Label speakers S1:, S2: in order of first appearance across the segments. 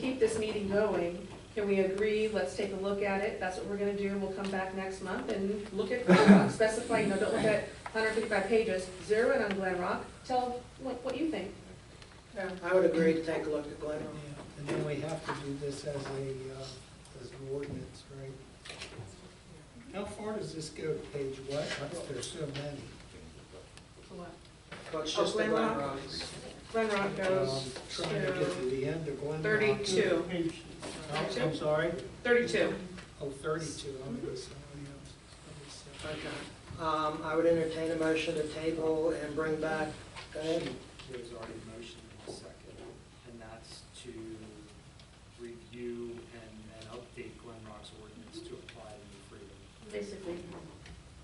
S1: this meeting going, can we agree, let's take a look at it, that's what we're gonna do, we'll come back next month and look at Glen Rock, specify, you know, don't look at hundred fifty-five pages, zero in on Glen Rock, tell what, what you think.
S2: Yeah, I would agree to take a look at Glen.
S3: And then we have to do this as a, uh, as an ordinance, right? How far does this go to page what? There's so many.
S2: Well, it's
S1: Oh,
S2: just the
S1: Glen
S2: Glen
S1: Rock?
S2: Rocks.
S1: Glen Rock
S3: Um,
S1: goes
S3: Trying to get to
S1: to
S3: the end of Glen Rock.
S1: 32.
S3: Oh, I'm sorry,
S1: thirty-two.
S3: oh, thirty-two, I'm gonna oh, somebody else.
S2: Okay. Um, I would entertain a motion to table and bring back, go ahead.
S4: There's already a motion in a second, and that's to review and, and update Glen Rock's ordinance to apply the new freedom,
S1: Basically,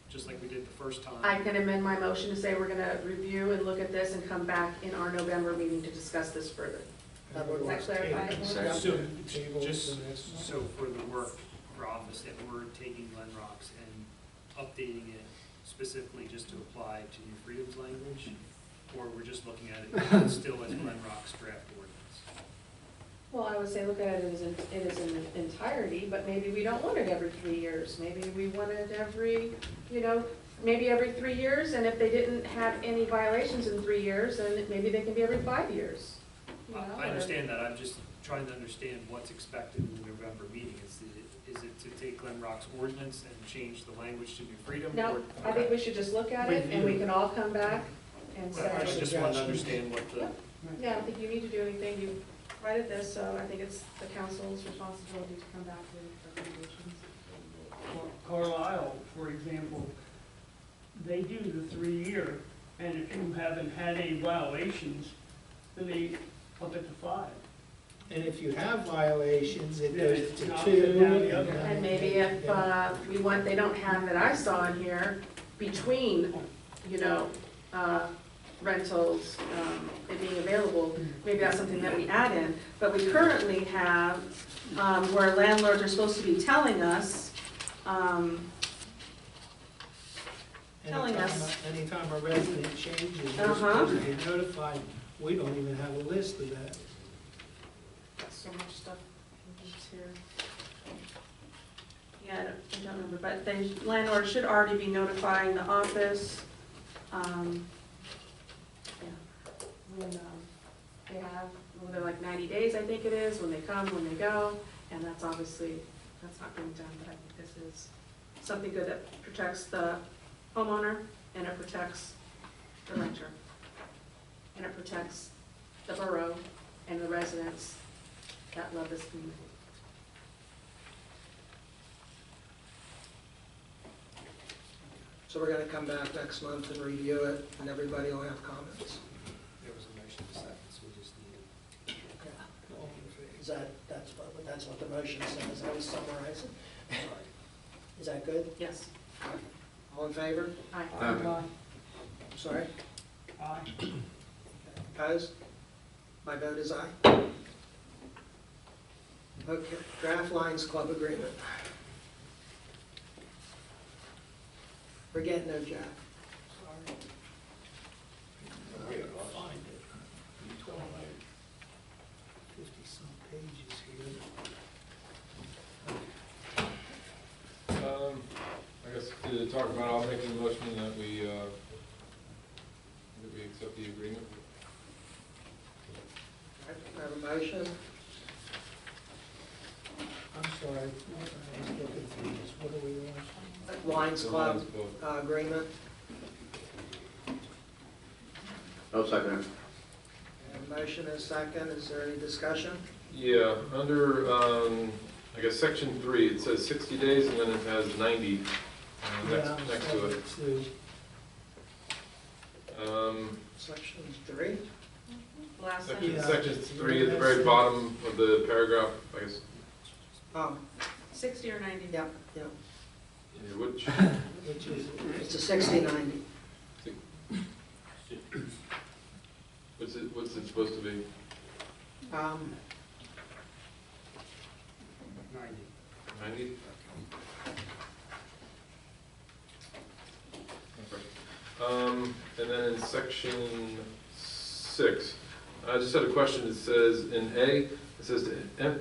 S4: just like we did the first time.
S1: I can amend my motion to say we're gonna review and look at this and come back in our November meeting to discuss this further.
S3: That would
S2: Does
S1: that clarify it more?
S4: So,
S3: Table
S4: j-
S3: to
S4: just
S3: the next one.
S4: so for the work for office, that we're taking Glen Rock's and updating it specifically just to apply to new freedoms language, or we're just looking at it still as Glen Rock's draft ordinance?
S1: Well, I would say look at it as, in- it is in entirety, but maybe we don't want it every three years. Maybe we want it every, you know, maybe every three years, and if they didn't have any violations in three years, then maybe they can be every five years. you know,
S4: I I
S1: or-
S4: understand that, I'm just trying to understand what's expected in the November meeting. Is it, is it to take Glen Rock's ordinance and change the language to New Freedom?
S1: No,
S4: or-
S1: I think we should just look at it, and we can all come back and
S4: Well, I
S1: say,
S4: just want to understand what the,
S1: yeah, I don't think you need to do anything. You righted this, so I think it's the council's responsibility to come back with recommendations.
S5: Carlisle, for example, they do the three-year, and if you haven't had any violations, then they up it to five.
S3: And if you have violations, it
S5: Then
S3: goes
S5: it's
S3: to
S5: not
S3: two.
S5: down the other.
S3: then-
S1: And maybe if,
S3: Yeah.
S1: uh, we want, they don't have that I saw in here, between, you know, uh, rentals, um, it being available, maybe that's something that we add in. But we currently have, um, where landlords are supposed to be telling us, um, telling
S3: Anytime
S1: us.
S3: a- Anytime a resident changes, you're
S1: Uh-huh.
S3: supposed to be notified. We don't even have a list of that.
S1: so much stuff here. Yeah, I don't, I don't remember, but they, landlord should already be notifying the office, um, yeah. When, um, they have, well, they're like ninety days, I think it is, when they come, when they go, and that's obviously, that's not being done, but I think this is something good that protects the homeowner, and it protects the renter. And it protects the borough and the residents that love this community.
S2: So we're gonna come back next month and review it, and everybody will have comments.
S4: there was a motion to second, so we just need
S2: Is that, that's what, that's what the motion says, I was summarizing.
S4: to, sorry.
S2: Is that good?
S1: Yes,
S2: All in favor?
S1: aye.
S5: Um,
S6: Aye.
S2: I'm Sorry,
S5: Aye.
S2: opposed? My vote is aye. Okay, draft Lions Club agreement. We're getting there, Jack.
S3: Find it. Fifty-some pages here.
S6: Um, I guess to talk about, I'll make a motion that we, uh, that we accept the agreement.
S2: I have a motion,
S3: I'm sorry, I was looking through this, what are we on?
S2: Lions Club
S6: The Lions
S2: uh, agreement.
S7: I'll second it.
S2: And a Motion and a second, is there any discussion?
S6: Yeah, under, um, I guess, section three, it says sixty days, and then it has ninety, uh,
S3: Yeah, I'm
S6: next, next to
S3: sorry,
S6: it.
S3: it's, uh,
S6: Um,
S2: Section three,
S1: Last
S6: section,
S3: Yeah.
S1: sentence,
S6: section three, at the very bottom of the paragraph, I guess,
S2: oh,
S1: sixty or ninety?
S2: yeah, yeah,
S6: yeah, which,
S3: Which is,
S2: it's a sixty-ninety.
S6: what's it, what's it supposed to be?
S2: Um,
S4: Ninety.
S6: Ninety? Um, and then in section six, I just had a question, it says in A, it says to em-